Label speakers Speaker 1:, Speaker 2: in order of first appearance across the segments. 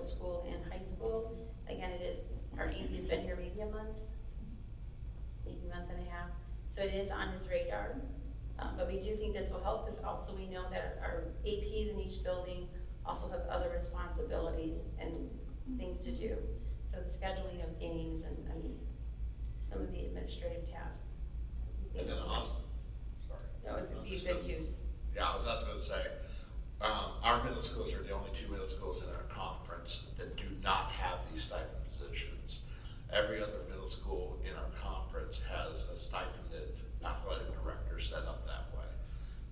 Speaker 1: school and high school. Again, it is, our AD's been here maybe a month, maybe a month and a half, so it is on his radar. Um, But we do think this will help, because also we know that our APs in each building also have other responsibilities and things to do. So the scheduling of games and, and some of the administrative tasks. we
Speaker 2: And
Speaker 1: think
Speaker 2: then
Speaker 1: will
Speaker 2: also,
Speaker 1: help.
Speaker 2: sorry.
Speaker 1: That was a
Speaker 2: Um,
Speaker 1: huge, big use.
Speaker 2: Yeah, I was, I was gonna say, um, our middle schools are the only two middle schools in our conference that do not have these stipend positions. Every other middle school in our conference has a stipended athletic director set up that way.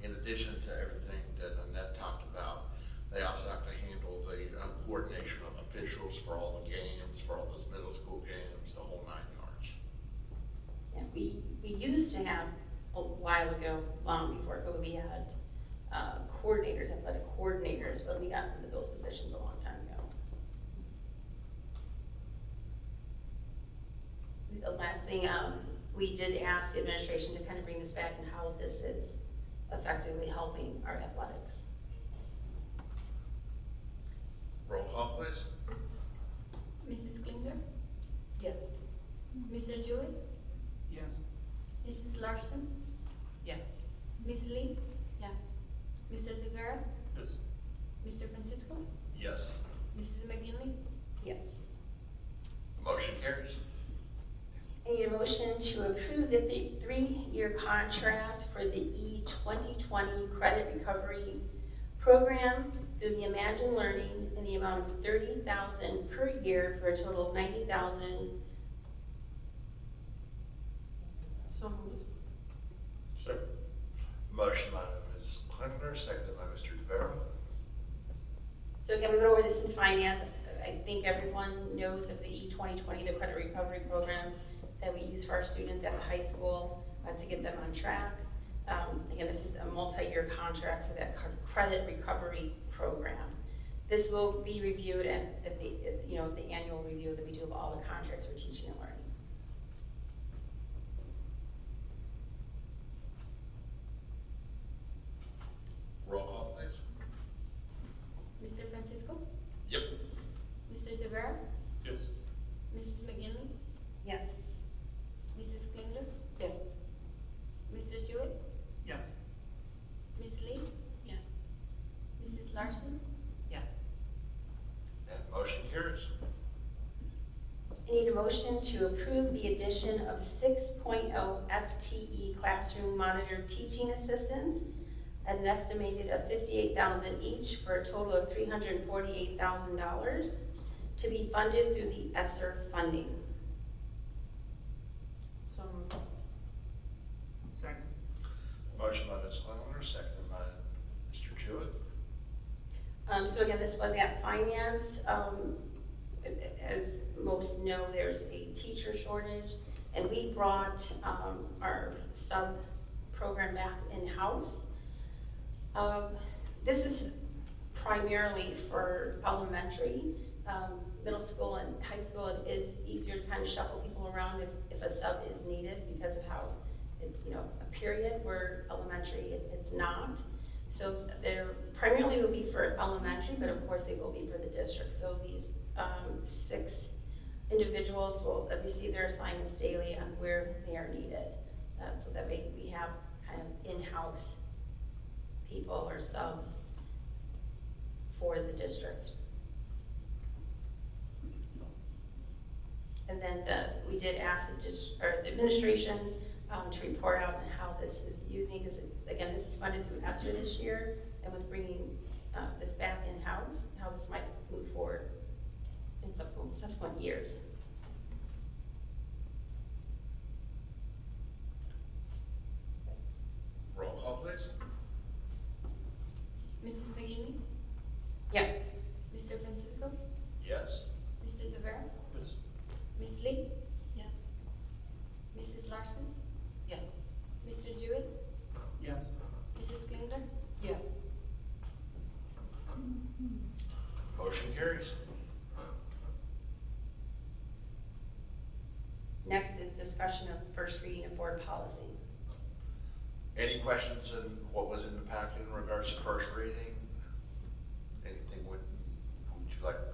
Speaker 2: In addition to everything that Annette talked about, they also have to handle the um, coordination of officials for all the games, for all those middle school games, the whole nine yards.
Speaker 1: Yeah, we, we used to have, a while ago, long before COVID, we had uh, coordinators, athletic coordinators, but we got rid of those positions a long time ago. The last thing, um, we did ask the administration to kind of bring this back and how this is effectively helping our athletics.
Speaker 2: Roll call, please.
Speaker 3: Mrs. Klinger?
Speaker 1: Yes.
Speaker 3: Mr. Jewett?
Speaker 4: Yes.
Speaker 3: Mrs. Larson?
Speaker 4: Yes.
Speaker 3: Ms. Lee? Yes. Mr. Rivera?
Speaker 4: Yes.
Speaker 3: Mr. Francisco?
Speaker 2: Yes.
Speaker 3: Mrs. McGinley?
Speaker 1: Yes.
Speaker 2: Motion carries.
Speaker 1: I need a motion to approve the th- three-year contract for the E-2020 Credit Recovery Program through the Imagine Learning in the amount of $30,000 per year for a total of $90,000.
Speaker 4: So moved. Second.
Speaker 2: Motion by Ms. Klingler, seconded by Mr. DeVera.
Speaker 1: So again, we went over this in finance. I think everyone knows of the E-2020, the credit recovery program that we use for our students at the high school uh, to get them on track. Um, Again, this is a multi-year contract for that cr- credit recovery program. This will be reviewed at, at the, at, you know, the annual review that we do of all the contracts for teaching and learning.
Speaker 2: Roll call, please.
Speaker 3: Mr. Francisco?
Speaker 2: Yep.
Speaker 3: Mr. Rivera?
Speaker 4: Yes.
Speaker 3: Mrs. McGinley?
Speaker 1: Yes.
Speaker 3: Mrs. Klinger?
Speaker 1: Yes.
Speaker 3: Mr. Jewett?
Speaker 4: Yes.
Speaker 3: Ms. Lee?
Speaker 1: Yes.
Speaker 3: Mrs. Larson?
Speaker 4: Yes.
Speaker 2: And motion carries.
Speaker 1: I need a motion to approve the addition of 6.0 FTE E classroom monitor teaching assistants at an estimated of $58,000 each for a total of $348,000 to be funded through the ESSER funding.
Speaker 4: So moved. Second.
Speaker 2: Motion by Ms. Klingler, seconded by Mr. Jewett.
Speaker 1: Um, So again, this was at finance. Um, As most know, there's a teacher shortage, and we brought um, our sub-program back in-house. Um, This is primarily for elementary, um, middle school and high school. It is easier to kind of shuffle people around if, if a sub is needed because of how it's, you know, a period where elementary, it- it's not. So they're primarily will be for elementary, but of course they will be for the district. So these um, six individuals will receive their assignments daily on where they are needed. Uh, So that we, we have kind of in-house people or subs for the district. And then the, we did ask the, dis- or the administration um, to report out on how this is using, because again, this is funded through ESSER this year, and with bringing uh, this back in-house, how this might move forward in subsequent- subsequent years.
Speaker 2: Roll call, please.
Speaker 3: Mrs. McGinley?
Speaker 1: Yes.
Speaker 3: Mr. Francisco?
Speaker 2: Yes.
Speaker 3: Mr. Rivera?
Speaker 4: Yes.
Speaker 3: Ms. Lee?
Speaker 1: Yes.
Speaker 3: Mrs. Larson?
Speaker 4: Yes.
Speaker 3: Mr. Jewett?
Speaker 4: Yes.
Speaker 3: Mrs. Klinger?
Speaker 1: Yes.
Speaker 2: Motion carries.
Speaker 1: Next is discussion of first reading of board policy.
Speaker 2: Any questions in what was in the packet in regards to first reading? Anything would, would you like